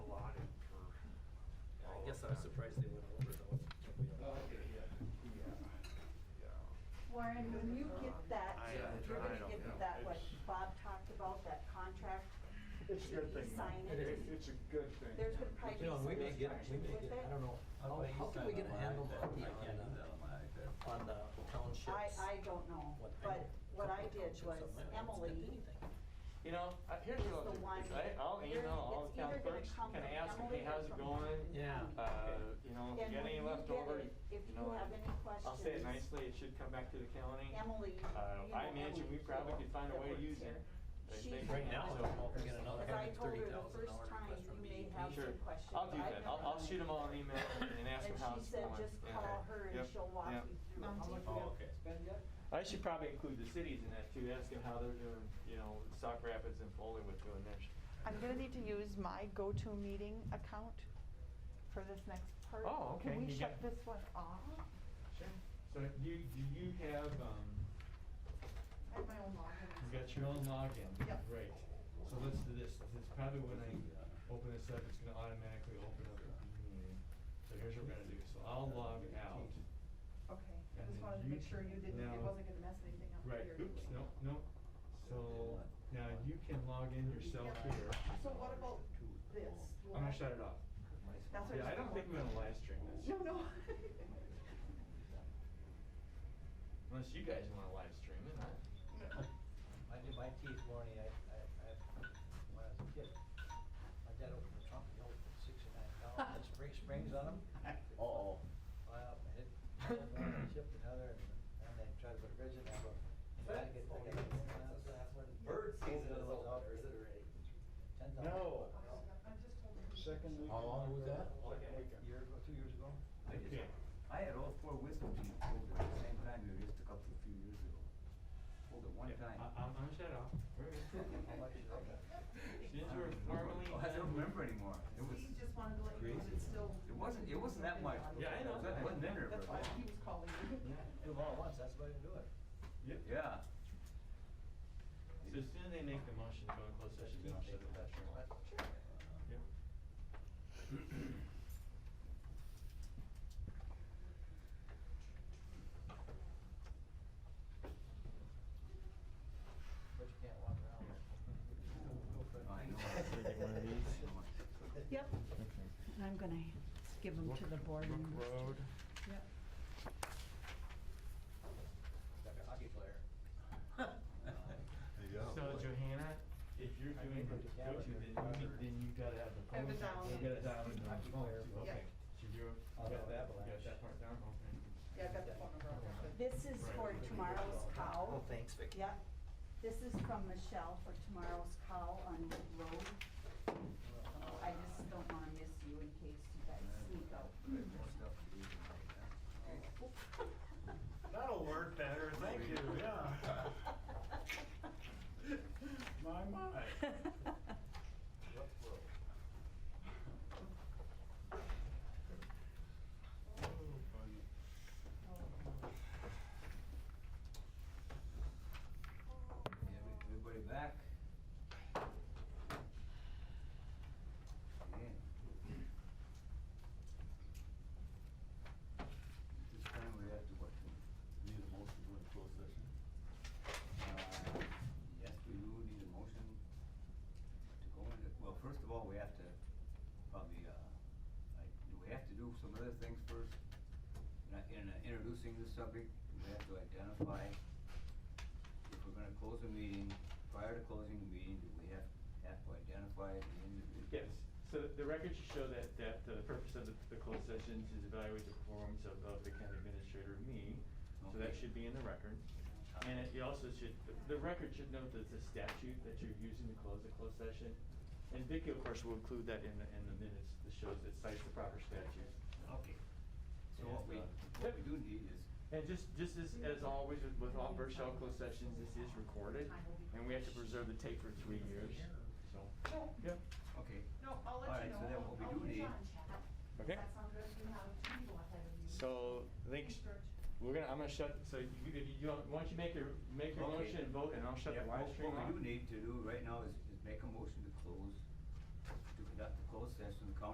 Oh, Warren, when you Um, get I that, am you're gonna trying, yeah. get that, what It's- Bob talked about, that contract, It's a good thing. Sign though. it. It- It's a good thing. there's gonna probably be You know, some we may get, we restrictions may with get, it. I don't know, how, how can we get a handle on the, on the- on the townships? I, I don't know, What- I but know a what I couple did townships was that might not spend Emily, anything. You know, I- here's It's what the I'll do. one- I- I'll you're- email all it's the town either gonna clerks, come kind of from ask them, Emily hey, or how's it from going? Yeah. Uh, you know, and if you when got any you left get over, it, if you know, have any questions. I'll say it nicely, it should come back to the county. Emily. you Uh, know I imagine Emily we probably could find a that way to works use here. it. I She- think- Right now, so- I don't know if we're gonna know As I told her the $130,000 first time, request you from may DEP. have Sure, some questions. I'll do I've that. never I'll, I'll done it. shoot them all an email and ask And them how she it's said, going. just Yeah. call her and Yep, she'll walk yep. you through how uh, much we have to spend yet. I should probably include the cities in that too, ask them how they're doing, you know, Stock Rapids and Foleywood doing theirs. I'm gonna need to use my go-to meeting account for this next part. Oh, okay. Can we You shut got- this one off? Sure. So do you, do you have, um, I have my own login. You got your own login? Yep. Great. So let's do this. This is probably when I open this up, it's gonna automatically open up the meeting. So here's what we're gonna do. So I'll log out. Okay, I And just then wanted to you make sure you didn't, it now- wasn't gonna mess anything up. Right, here. oops, no, no. So now you can log in yourself here. So what about this? I'm gonna shut it off. That's what Yeah, I don't think we're gonna live stream this. No, no. Unless you guys wanna live stream it, huh? I did my teeth, Barney, I, I, I- when I was a kid, my dad opened a trunk, he opened six and nine dollars, had spring springs on them. Uh-oh. Well, I hit, one chipped another, and then tried to put a bridge in that, but tried to get the guy. Bird season is over, is it already? Ten dollars. No. Second week. How long was that? A year ago, two years ago. I Okay. just, I had all four wisdom teeth pulled at the same time, you just took up a few years ago. Pulled at one Yeah, time. I- I'm gonna shut it off. How much is that? Since I we're don't formally. remember. Oh, I don't remember anymore. It He was, just wanted to let you know that it's still. it wasn't, it wasn't that much. Yeah, I know. It wasn't in there, That's why but, he was calling you. Yeah. Do them all at once, that's the way to do it. Yep. yeah. So as soon as they make the motion to go in closed session, then I'll shut it down. Yep. But you can't walk around. I know. Yep. And I'm gonna give them to the board. members. Yep. Like a hockey player. So Johanna, if you're doing the go-to, then you, need- then you gotta have the. I have it phone. down. You gotta dial it down. Hockey player. Oh, Okay. So you're, you got that, you got that part down, okay. Yeah, I've got the phone number. I'll get it. This is for tomorrow's cow. Oh, thanks, Vicky. Yep. This is from Michelle for tomorrow's call on Wood Road. I just don't want to miss you in case you guys sneak out. That'll work better, thank you, yeah. My, my. Everybody back? Yeah. This time we have to what? Need a motion to close session? Uh, Yes, we do need a motion to go into, well, first of all, we have to probably, uh, like, do we have to do some other things first? In uh, in, uh, introducing the subject, we have to identify if we're gonna close the meeting, prior to closing the meeting, do we have, have to identify the individual? Yes, so the record should show that, that the purpose of the- the closed session is to evaluate the performance of, of the county administrator, me. So that Okay. should be in the record. And it you also should, the record should note that the statute that you're using to close the closed session, and Vicki, of course, will include that in the, in the minutes, that shows it cites the proper statute. Okay. So what we, what we do need is, And just, just as, as always with- with all Burchell closed sessions, this is recorded, and we have to preserve the tape for three years, so. Yep. okay, No, I'll All let right, you know. so then what we I'll- do I'll use need- on chat. Okay. That sounds good. You have two people ahead of you. So, I think, Thanks, George. we're gonna, I'm gonna shut, so you, you- you, don't- why don't you make your, make your Okay. motion and vote, and I'll shut the yeah, live what stream what off? we do need to do right now is, is make a motion to close, to conduct the closed session, the county